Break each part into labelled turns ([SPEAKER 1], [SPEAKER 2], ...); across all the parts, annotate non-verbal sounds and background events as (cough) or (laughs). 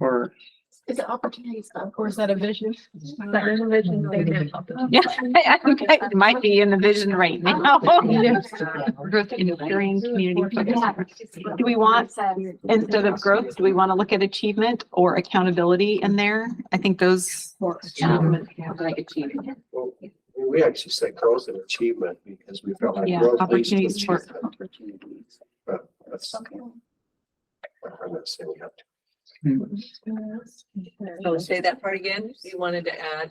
[SPEAKER 1] or?
[SPEAKER 2] Is it opportunities club or is that a vision? Is that a vision statement?
[SPEAKER 3] Yeah, I, I think it might be in the vision right (laughs) now. Growth in the green community. focus. Do we want, instead of growth, do we want to look at achievement or accountability in there? I think those. um, like achievement.
[SPEAKER 1] Well, We actually said growth and achievement because we felt like.
[SPEAKER 3] Yeah,
[SPEAKER 1] growth leads to
[SPEAKER 3] opportunities for-
[SPEAKER 1] achievement. But that's. I'm not saying we have to.
[SPEAKER 4] So Oh, say that part again. You wanted to add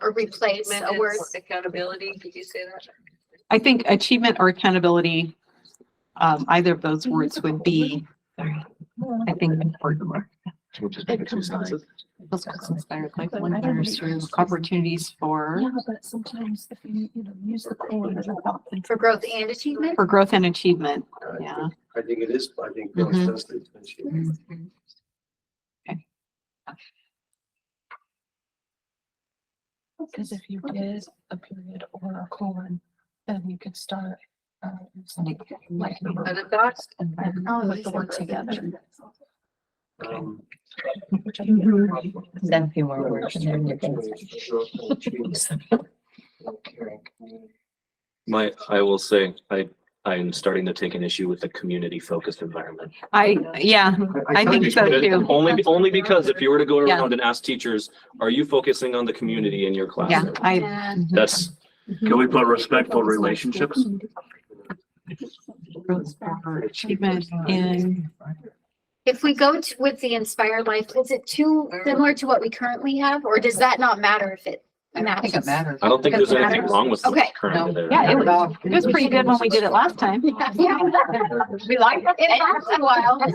[SPEAKER 2] Or replace a word.
[SPEAKER 4] maintenance, accountability. Did you say that?
[SPEAKER 3] I think achievement or accountability, um, either of those words would be, I think, important.
[SPEAKER 1] Which is.
[SPEAKER 2] It combines.
[SPEAKER 3] Those words inspired like wonders through opportunities for,
[SPEAKER 2] Yeah, but sometimes if you, you know, use the core.
[SPEAKER 5] For growth and achievement?
[SPEAKER 3] for growth and achievement.
[SPEAKER 1] I think-
[SPEAKER 3] Yeah.
[SPEAKER 1] I think it is, I think. growth
[SPEAKER 3] Mhm.
[SPEAKER 1] does lead to achievement.
[SPEAKER 2] Because if you did a period or a colon, then you could start. uh, something Like.
[SPEAKER 4] Other thoughts?
[SPEAKER 2] and then
[SPEAKER 5] Oh,
[SPEAKER 2] Put
[SPEAKER 5] these
[SPEAKER 2] the
[SPEAKER 5] are
[SPEAKER 2] word
[SPEAKER 5] those
[SPEAKER 2] together.
[SPEAKER 1] Um,
[SPEAKER 2] which I think is
[SPEAKER 1] Mm-hmm.
[SPEAKER 2] probably-
[SPEAKER 6] Something
[SPEAKER 1] yeah,
[SPEAKER 6] where we're
[SPEAKER 1] that's
[SPEAKER 6] connected.
[SPEAKER 1] opportunities for growth and achievement. Caring community.
[SPEAKER 7] My, I will say, I, I'm starting to take an issue with the community focused environment.
[SPEAKER 3] I, yeah, I
[SPEAKER 1] kinda
[SPEAKER 3] think so
[SPEAKER 1] just-
[SPEAKER 3] too.
[SPEAKER 7] Only, only because if you were to go
[SPEAKER 3] Yeah.
[SPEAKER 7] around and ask teachers, are you focusing on the community in your
[SPEAKER 3] yeah,
[SPEAKER 7] classroom?
[SPEAKER 3] I,
[SPEAKER 5] Yeah.
[SPEAKER 7] That's,
[SPEAKER 8] Can we put respectful relationships?
[SPEAKER 3] growth or achievement in
[SPEAKER 5] If we go to, with the Inspire Life, is it too similar to what we currently have, or does that not matter if it
[SPEAKER 6] I think it
[SPEAKER 5] matches?
[SPEAKER 6] matters.
[SPEAKER 7] I don't think there's anything
[SPEAKER 5] Matters.
[SPEAKER 7] wrong with
[SPEAKER 5] Okay.
[SPEAKER 7] what's currently there.
[SPEAKER 3] Yeah, it was, it was pretty good when we did it last time.
[SPEAKER 5] Yeah,
[SPEAKER 3] We liked
[SPEAKER 5] it lasts a while.
[SPEAKER 4] Can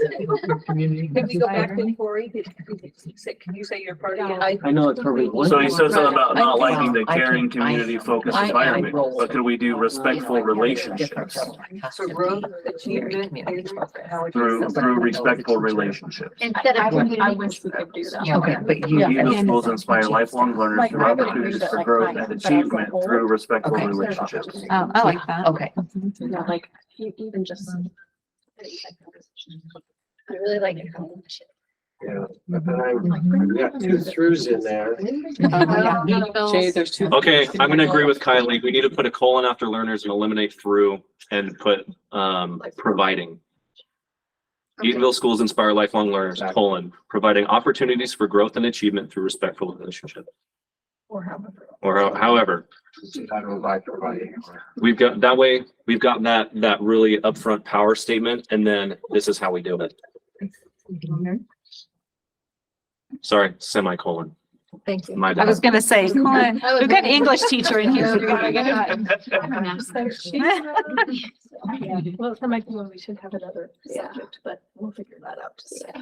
[SPEAKER 4] we go back to Corey? Did- did you say- Can you say your part again?
[SPEAKER 1] I know it's probably.
[SPEAKER 8] So he said something about Uh, not
[SPEAKER 6] Right.
[SPEAKER 8] liking the
[SPEAKER 6] I can-
[SPEAKER 8] caring,
[SPEAKER 6] I-
[SPEAKER 8] community-focused
[SPEAKER 6] I- I
[SPEAKER 8] environment,
[SPEAKER 6] roll
[SPEAKER 8] but could we do
[SPEAKER 6] with-
[SPEAKER 8] respectful relationships
[SPEAKER 4] So growth, achievement.
[SPEAKER 8] through, through respectful relationships?
[SPEAKER 5] Instead
[SPEAKER 2] I
[SPEAKER 5] of
[SPEAKER 2] would- I
[SPEAKER 5] community.
[SPEAKER 2] wish we could do that.
[SPEAKER 6] Yeah, okay, but you.
[SPEAKER 2] Yeah.
[SPEAKER 8] You
[SPEAKER 3] Again,
[SPEAKER 8] know, schools inspire lifelong learners
[SPEAKER 2] Like,
[SPEAKER 8] through
[SPEAKER 2] I would agree
[SPEAKER 8] opportunities
[SPEAKER 2] that,
[SPEAKER 8] for
[SPEAKER 2] like,
[SPEAKER 8] growth
[SPEAKER 2] my-
[SPEAKER 8] and
[SPEAKER 2] but as a
[SPEAKER 8] achievement
[SPEAKER 2] whole-
[SPEAKER 8] through respectful
[SPEAKER 6] Okay.
[SPEAKER 8] relationships.
[SPEAKER 3] Oh, I like that.
[SPEAKER 6] Okay,
[SPEAKER 2] Yeah, like e- even just.
[SPEAKER 5] I really like it.
[SPEAKER 1] Yeah, but then
[SPEAKER 2] Mm-hmm.
[SPEAKER 1] I, we got two throughs in
[SPEAKER 2] (laughs)
[SPEAKER 1] there.
[SPEAKER 3] Oh, yeah.
[SPEAKER 6] Jay, there's two.
[SPEAKER 7] Okay, I'm gonna agree with Kylie. We need to put a colon after learners and eliminate through and put, um, providing. Eatonville schools inspire lifelong learners, colon, providing opportunities for growth and achievement through respectful relationship.
[SPEAKER 2] Or however.
[SPEAKER 7] Or how- however,
[SPEAKER 1] I don't like providing.
[SPEAKER 7] We've got, that way, we've got that, that really upfront power statement, and then this is how we do it. Sorry, semicolon,
[SPEAKER 2] Thank you.
[SPEAKER 7] my
[SPEAKER 3] I was
[SPEAKER 7] bad.
[SPEAKER 3] gonna say, come on,
[SPEAKER 5] I would
[SPEAKER 3] we've got an
[SPEAKER 5] really-
[SPEAKER 3] English teacher in here.
[SPEAKER 2] So she- Well, that might be when we should have another
[SPEAKER 5] Yeah.
[SPEAKER 2] subject, but we'll figure that out. just so.
[SPEAKER 4] Say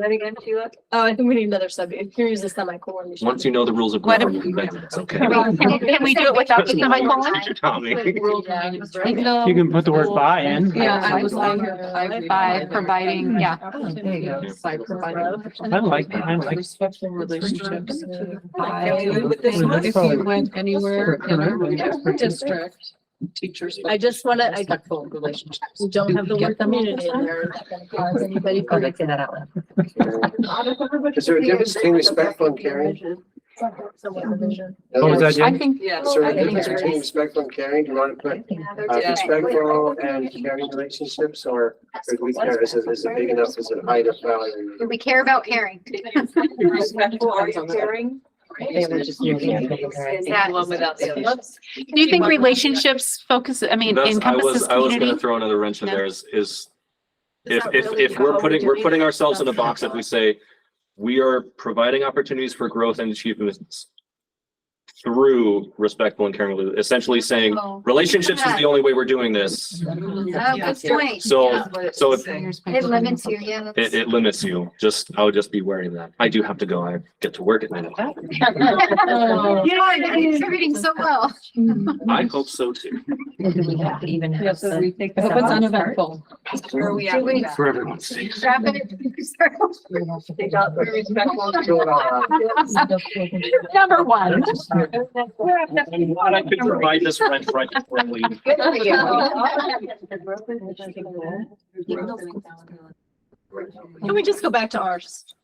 [SPEAKER 4] that again, Sheila?
[SPEAKER 2] Oh, I think we need another subject. Here is the semicolon. we should-
[SPEAKER 7] Once you know the rules of
[SPEAKER 3] What if-
[SPEAKER 7] government, then it's okay.
[SPEAKER 3] Can we-
[SPEAKER 7] (laughs)
[SPEAKER 3] Can we do it without the semicolon?
[SPEAKER 7] Teacher Tommy.
[SPEAKER 9] You can put the word by in.
[SPEAKER 3] Yeah, I was
[SPEAKER 2] like,
[SPEAKER 3] By
[SPEAKER 2] Mm-hmm.
[SPEAKER 3] providing, yeah,
[SPEAKER 9] I like, I like.
[SPEAKER 6] Respectful relationships.
[SPEAKER 9] That's probably-
[SPEAKER 6] went anywhere in a district, teachers.
[SPEAKER 2] I just want to, I
[SPEAKER 6] Respectful relationships.
[SPEAKER 2] don't have the word community in there. It's gonna cause Anybody.
[SPEAKER 6] Oh, they say that out loud.
[SPEAKER 1] Is there a difference between respectful and caring?
[SPEAKER 2] Mm-hmm.
[SPEAKER 9] What was that, Jen?
[SPEAKER 3] think.
[SPEAKER 4] Yes.
[SPEAKER 1] Is there a
[SPEAKER 3] I think
[SPEAKER 1] difference
[SPEAKER 3] there
[SPEAKER 1] between
[SPEAKER 3] is.
[SPEAKER 1] respectful and caring? Do you want to put uh,
[SPEAKER 4] Yeah.
[SPEAKER 1] respectful and caring relationships or or do we care? Is it, is it big enough? Is it high enough value?
[SPEAKER 5] Do we care about caring?
[SPEAKER 4] Respectful, are you caring?
[SPEAKER 6] They were just moving it.
[SPEAKER 4] Saying One without the other.
[SPEAKER 3] Do you think relationships focus, I mean,
[SPEAKER 7] That's, I was,
[SPEAKER 3] encompasses
[SPEAKER 7] I was gonna
[SPEAKER 3] community?
[SPEAKER 7] throw another wrench in
[SPEAKER 3] No.
[SPEAKER 7] there is, is
[SPEAKER 2] Is
[SPEAKER 7] if,
[SPEAKER 2] that
[SPEAKER 7] if,
[SPEAKER 2] really
[SPEAKER 7] if we're
[SPEAKER 2] how
[SPEAKER 7] putting,
[SPEAKER 2] we're
[SPEAKER 7] we're
[SPEAKER 2] doing
[SPEAKER 7] putting
[SPEAKER 2] it?
[SPEAKER 7] ourselves in a box if we say, we are providing opportunities for growth and achievements through respectful and caring, essentially saying,
[SPEAKER 3] Oh.
[SPEAKER 7] relationships is the only way we're doing this.
[SPEAKER 5] Oh, good point.
[SPEAKER 7] So, so if-
[SPEAKER 5] It limits you, yeah. that's-
[SPEAKER 7] It, it limits you. Just, I would just be wary of that. I do have to go. I get to work at nine o'clock.
[SPEAKER 5] You are contributing so well.
[SPEAKER 7] I hope so too.
[SPEAKER 6] Do we have to even have? some-
[SPEAKER 4] Hope it's
[SPEAKER 6] uneventful.
[SPEAKER 4] Where are we at? with that?
[SPEAKER 1] For everyone's sake.
[SPEAKER 5] Grab it.
[SPEAKER 4] Take out the (laughs) respectful.
[SPEAKER 1] Fill it all out.
[SPEAKER 3] Number one.
[SPEAKER 7] I'm glad I could provide this rent right before I leave.
[SPEAKER 5] (laughs)
[SPEAKER 3] Can we just go back to ours?